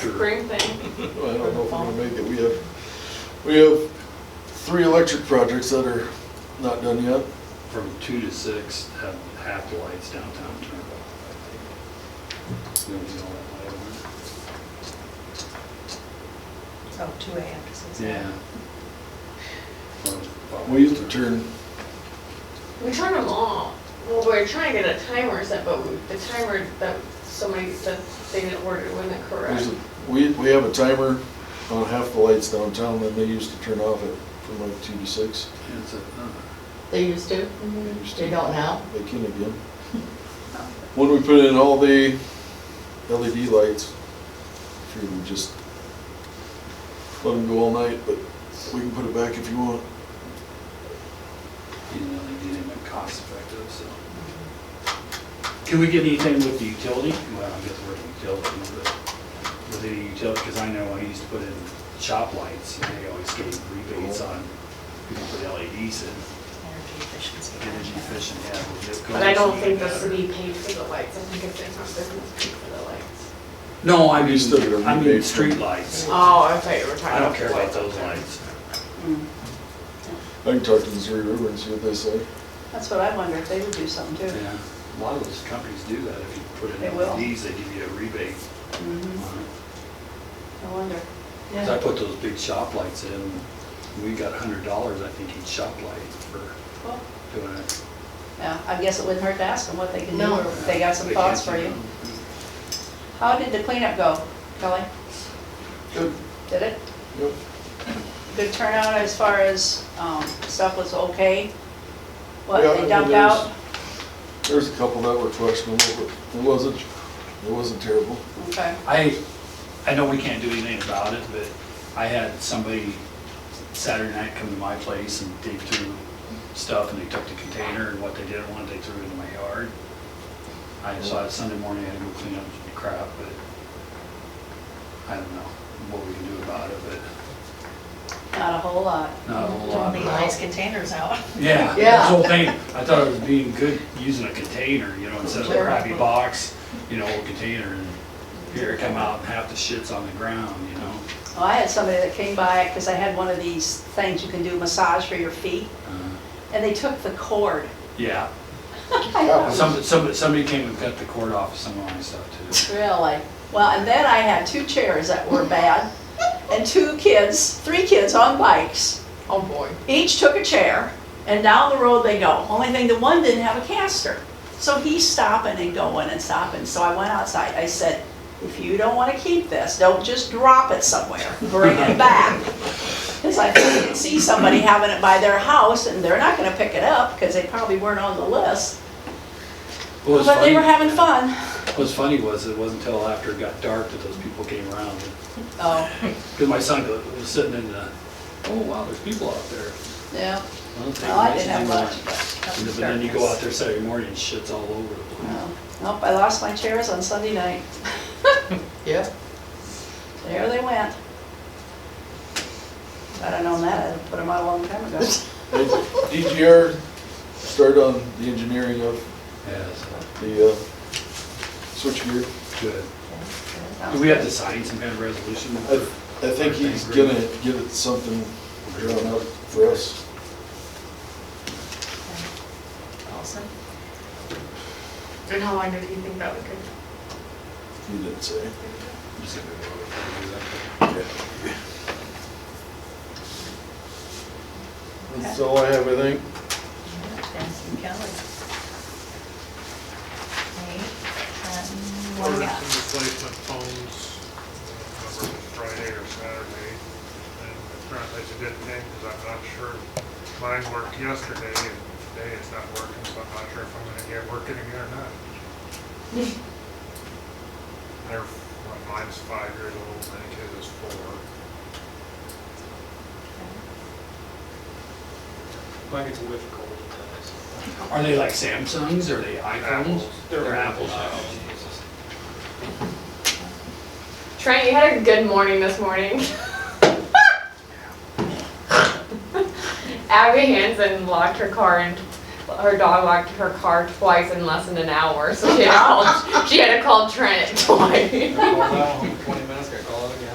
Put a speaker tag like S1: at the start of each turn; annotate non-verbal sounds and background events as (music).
S1: recurring thing.
S2: Well, I don't know if we're gonna make it, we have, we have three electric projects that are not done yet.
S3: From two to six, have half the lights downtown turned off. Nobody's on that light on.
S4: So two AM to six AM.
S3: Yeah.
S2: We used to turn,
S1: We turn them off. Well, we're trying to get a timer set, but we- the timer that somebody said they didn't order it wasn't correct.
S2: there's a- we, we have a timer on half the lights downtown, then they used to turn off at, from like two to six.
S3: It's a, uh,
S5: They used to?
S1: Mm-hmm.
S2: They used to-
S5: They don't now?
S2: They can again. When we put in all the LED lights, sure, we just let them go all night, but we can put it back if you want.
S3: you know, they did it cost effective, so.
S6: Can we get anything with the utility?
S3: Well, I guess we're in utility, but
S6: With any utility, because I know I used to put in shop lights, and they always gave rebates on, you know, put LEDs in,
S4: Energy efficiency.
S6: energy efficient, yeah. we'll get
S1: But I don't
S6: going,
S1: think the
S6: better.
S1: city paid for the lights. I think it's in-house business paid for the lights.
S6: No, I mean,
S2: You still get a
S6: I mean,
S2: rebate from-
S6: street lights.
S1: Oh, I thought you were talking
S6: I don't care about those lights.
S2: I can talk to the Missouri River and see what they say.
S7: That's what I wonder, if they would do something too.
S3: yeah, a lot of those companies do that. If you put
S7: They
S3: in
S6: E
S7: will.
S3: LEDs, they give you a rebate.
S7: Mhm,
S1: Mm-hmm.
S3: on it.
S7: I wonder.
S3: 'Cause I put those big shop lights in, we got a hundred dollars, I think, each shop light for
S7: Well,
S3: doing it.
S7: Yeah, I guess it wouldn't hurt to ask them what they can do,
S1: No.
S7: or if they got some
S3: They
S7: thoughts for
S3: can't do
S7: you.
S3: them.
S7: How did the cleanup go, Kelly?
S2: Good.
S7: Did it?
S2: Yep.
S7: Good turnout as far as um, stuff was okay? What
S2: Yeah, I
S7: they
S2: mean,
S7: dumped
S2: there's-
S7: out?
S2: There's a couple that were questionable, but it wasn't, it wasn't terrible.
S7: Okay,
S6: I, I know we can't do anything about it, but I had somebody Saturday night come to my place and dig through stuff, and they took the container, and what they didn't want, they threw it in my yard. I saw it Sunday morning, I had to go clean up the crap, but I don't know what we can do about it, but
S7: not a whole lot.
S6: not a whole
S4: Don't
S6: lot.
S4: leave nice containers out.
S6: Yeah,
S5: Yeah.
S6: this whole thing, I thought it was being good using a container, you know, instead of a crappy box, you know, a container, and here it come out, and half the shit's on the ground, you know?
S7: (laughs) Well, I had somebody that came by, because I had one of these things you can do massage for your feet,
S6: Uh,
S7: and they took the cord.
S6: Yeah,
S2: Happens.
S6: some, some, somebody came and cut the cord off of some of my stuff
S7: Really? Well, and then I had two chairs that were bad, and two kids, three kids on bikes.
S1: Oh, boy.
S7: Each took a chair, and down the road they go. Only thing, the one didn't have a caster. So he's stopping and going and stopping. So I went outside. I said, if you don't want to keep this, don't just drop it somewhere. Bring it back. Because I can see somebody having it by their house, and they're not going to pick it up because they probably weren't on the list.
S6: too.
S7: But they were having fun.
S6: What's funny was, it wasn't until after it got dark that those people came around,
S7: Oh,
S6: because my son go- was sitting in the, oh wow, there's people out there.
S7: yeah.
S6: I don't think
S7: Well, Oh, I
S6: they
S7: didn't have
S6: do that.
S7: much, but.
S6: And then- But then you go out there Saturday morning, and shit's all over the place.
S7: No. Nope, I lost my chairs on Sunday night.
S5: Yeah.
S7: There they went. If I'd have known that, I'd have put them out a long time
S6: (laughs)
S7: ago.
S2: They- DGR started on the engineering of
S6: Yeah, so,
S2: the uh, switchgear.
S6: good. Do we have to sign some kind of resolution?
S2: I, I think he's gonna give it something drawn up for us.
S4: Awesome.
S1: And how long did you think that would go?
S2: He didn't say.
S6: Just gonna go over it, exactly.
S2: That's all I have, I think.
S4: Benson Kelly. Okay, um, what do we
S8: Ordered
S4: got?
S8: some replacement phones, I don't remember if it was Friday or Saturday. And apparently they didn't hang, because I'm not sure, mine worked yesterday, and today it's not working, so I'm not sure if I'm gonna get working again or not. They're, well, mine's five years old, and I think his is four.
S9: Mine gets a whiff cold at times.
S6: Are they like Samsungs, are they iPhones?
S8: Apples.
S6: They're Apples.
S9: Oh, Jesus.
S1: Trent, you had a good morning this morning. Abby Hansen locked her car and her dog locked her car twice in less than an hour, so she had to call, she had to call Trent (laughs) twice.
S9: They're cold now, 20 minutes gonna call it again.